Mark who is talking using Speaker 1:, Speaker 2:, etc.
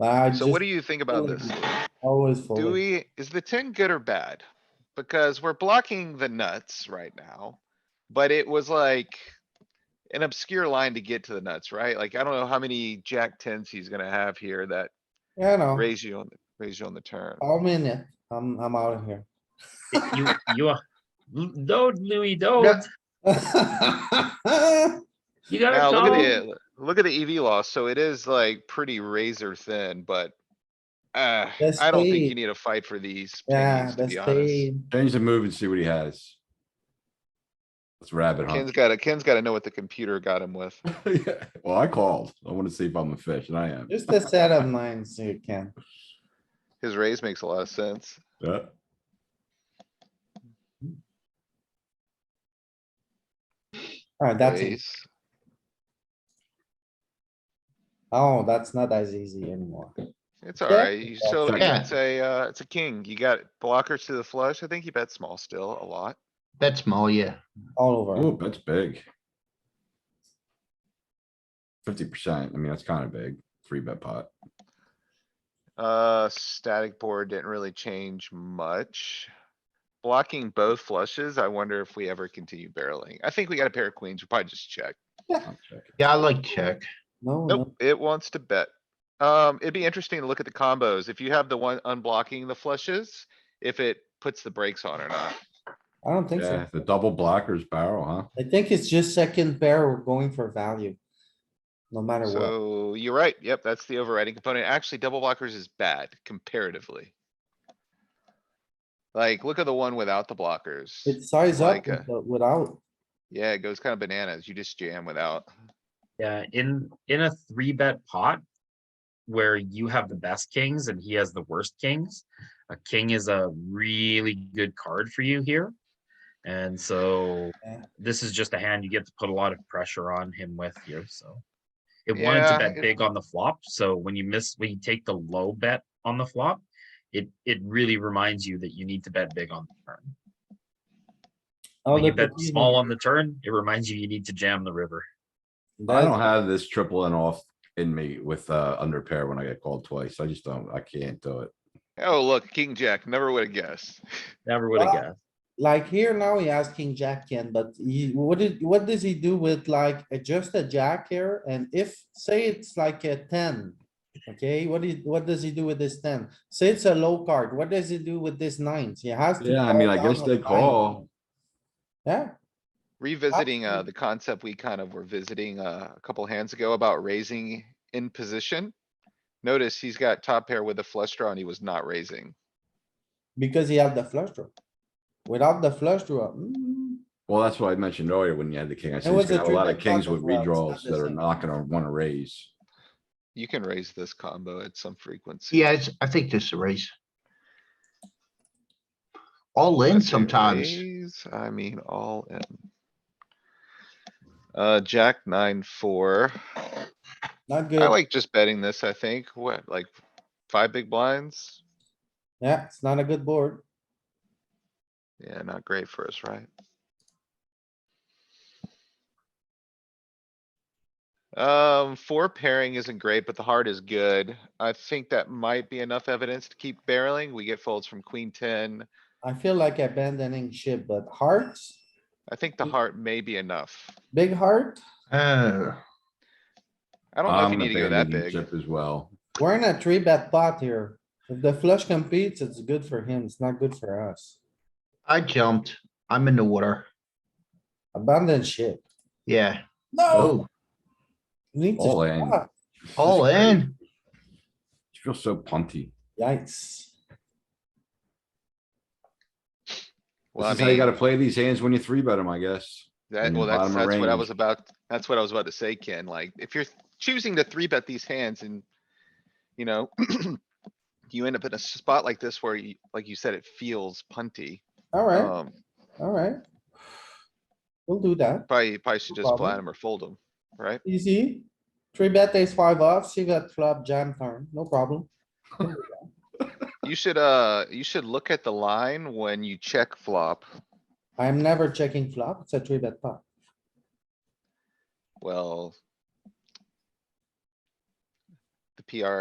Speaker 1: I
Speaker 2: So
Speaker 1: just
Speaker 2: what do you think about this?
Speaker 1: always
Speaker 2: Do
Speaker 1: fold.
Speaker 2: we, is the ten good or bad? Because we're blocking the nuts right now, but it was like. An obscure line to get to the nuts, right? Like, I don't know how many jack tens he's gonna have here that
Speaker 1: Yeah, no,
Speaker 2: raise you on, raise you on the turn.
Speaker 1: all minute. I'm, I'm out of here.
Speaker 3: You, you are, don't Louis, don't. You gotta
Speaker 2: Now, look at
Speaker 3: call.
Speaker 2: the, look at the EV loss, so it is like pretty razor thin, but. Uh,
Speaker 1: Let's
Speaker 2: I don't think
Speaker 1: see.
Speaker 2: you need to fight for these.
Speaker 1: Yeah,
Speaker 2: pingies, to
Speaker 1: that's
Speaker 2: be honest.
Speaker 1: the,
Speaker 4: Change the move and see what he has. Let's rabbit
Speaker 2: Ken's
Speaker 4: hunt.
Speaker 2: gotta, Ken's gotta know what the computer got him with.
Speaker 4: Yeah, Well, I called. I wanna see if I'm a fish and I am.
Speaker 1: just a set of nines you can.
Speaker 2: His raise makes a lot of sense.
Speaker 4: Yeah.
Speaker 1: Alright, that's, it.
Speaker 2: Raise.
Speaker 1: oh, that's not as easy anymore.
Speaker 2: It's alright. You still,
Speaker 4: check.
Speaker 5: Yeah.
Speaker 2: it's a, uh, it's a king. You got blockers to the flush. I think you bet small still a lot.
Speaker 5: That's small, yeah.
Speaker 1: All over.
Speaker 4: Oh, that's big. Fifty percent. I mean, that's kinda big. Three bet pot.
Speaker 2: Uh, static board didn't really change much. Blocking both flushes. I wonder if we ever continue barreling. I think we got a pair of queens. We'll probably just check.
Speaker 4: I'm checking.
Speaker 5: Yeah, I like check.
Speaker 1: No,
Speaker 2: Nope,
Speaker 1: no,
Speaker 2: it wants to bet. Um, it'd be interesting to look at the combos. If you have the one unblocking the flushes, if it puts the brakes on or not.
Speaker 1: I don't think so.
Speaker 4: Yeah, the double blockers barrel, huh?
Speaker 1: I think it's just second pair, we're going for value. No matter what.
Speaker 2: So you're right. Yep, that's the overriding component. Actually, double blockers is bad comparatively. Like, look at the one without the blockers.
Speaker 1: It size up
Speaker 2: like a-
Speaker 1: with- without,
Speaker 2: Yeah, it goes kind of bananas. You just jam without.
Speaker 3: Yeah, in, in a three bet pot. Where you have the best kings and he has the worst kings. A king is a really good card for you here. And so
Speaker 1: Yeah.
Speaker 3: this is just a hand you get to put a lot of pressure on him with here, so. It wanted to
Speaker 2: Yeah,
Speaker 3: bet
Speaker 2: it-
Speaker 3: big on the flop, so when you miss, when you take the low bet on the flop. It, it really reminds you that you need to bet big on the turn.
Speaker 1: oh,
Speaker 3: When you
Speaker 1: look
Speaker 3: bet
Speaker 1: at these
Speaker 3: small
Speaker 1: ones.
Speaker 3: on the turn, it reminds you you need to jam the river.
Speaker 4: I
Speaker 1: That-
Speaker 4: don't have this triple and off in me with uh under pair when I get called twice. I just don't, I can't do it.
Speaker 2: Oh, look, king jack, never would have guessed.
Speaker 3: Never would have
Speaker 1: Well,
Speaker 3: guessed.
Speaker 1: Like here now, he has king jack Ken, but he, what did, what does he do with like a- just a jack here? And if, say it's like a ten. Okay, what do you, what does he do with this ten? Say it's a low card, what does he do with this nines? He has. to
Speaker 4: Yeah, I mean,
Speaker 1: call
Speaker 4: I
Speaker 1: down
Speaker 4: guess
Speaker 1: on
Speaker 4: they
Speaker 1: nine.
Speaker 4: call.
Speaker 1: Yeah,
Speaker 2: Revisiting, uh,
Speaker 1: Absolutely.
Speaker 2: the concept we kind of were visiting, uh, a couple hands ago about raising in position. Notice he's got top pair with a flush draw and he was not raising.
Speaker 1: because he had the flush draw. Without the flush draw, mm,
Speaker 4: Well, that's what I mentioned earlier when you had the king. I said,
Speaker 1: was
Speaker 4: he's gonna
Speaker 1: a
Speaker 4: have a lot of
Speaker 1: three-bet pot
Speaker 4: kings with
Speaker 1: as well. It's not
Speaker 4: redraws
Speaker 1: the
Speaker 4: that are
Speaker 1: same.
Speaker 4: not gonna wanna raise.
Speaker 2: You can raise this combo at some frequency.
Speaker 5: Yeah, it's, I think this is a raise. All in
Speaker 2: Let's say
Speaker 5: sometimes.
Speaker 2: raise, I mean, all in. Uh, jack nine, four.
Speaker 1: not
Speaker 2: I
Speaker 1: good.
Speaker 2: like just betting this, I think. What, like five big blinds?
Speaker 1: Yeah, it's not a good board.
Speaker 2: Yeah, not great for us, right? Um, four pairing isn't great, but the heart is good. I think that might be enough evidence to keep barreling. We get folds from queen ten.
Speaker 1: I feel like abandoning ship, but hearts,
Speaker 2: I think the heart may be enough.
Speaker 1: big heart,
Speaker 5: Uh,
Speaker 2: I don't know if
Speaker 4: I'm
Speaker 2: you need to go that
Speaker 4: abandoning
Speaker 2: big.
Speaker 4: chip As well.
Speaker 1: We're in a three bet pot here. If the flush competes, it's good for him. It's not good for us.
Speaker 5: I jumped. I'm in the water.
Speaker 1: Abandon ship.
Speaker 5: Yeah.
Speaker 1: No.
Speaker 5: Oh,
Speaker 1: Need to
Speaker 4: All in.
Speaker 1: stop.
Speaker 5: all in.
Speaker 4: You feel so punty.
Speaker 1: Yikes.
Speaker 2: Well, I
Speaker 4: This is how you
Speaker 2: mean,
Speaker 4: gotta play these hands when you three bet them, I guess.
Speaker 2: That,
Speaker 4: in
Speaker 2: well,
Speaker 4: the
Speaker 2: that's,
Speaker 4: bottom of
Speaker 2: that's what I
Speaker 4: range.
Speaker 2: was about, that's what I was about to say, Ken, like, if you're choosing to three bet these hands and, you know, you end up in a spot like this where you, like you said, it feels punty,
Speaker 1: Alright,
Speaker 2: um,
Speaker 1: alright. We'll do that.
Speaker 2: probably, probably should
Speaker 1: No
Speaker 2: just
Speaker 1: problem.
Speaker 2: flat them or fold them, right?
Speaker 1: Easy. Three bet ace five off, see that flop jam turn, no problem.
Speaker 2: You should, uh, you should look at the line when you check flop.
Speaker 1: I'm never checking flop. It's a three bet pot.
Speaker 2: Well, the PR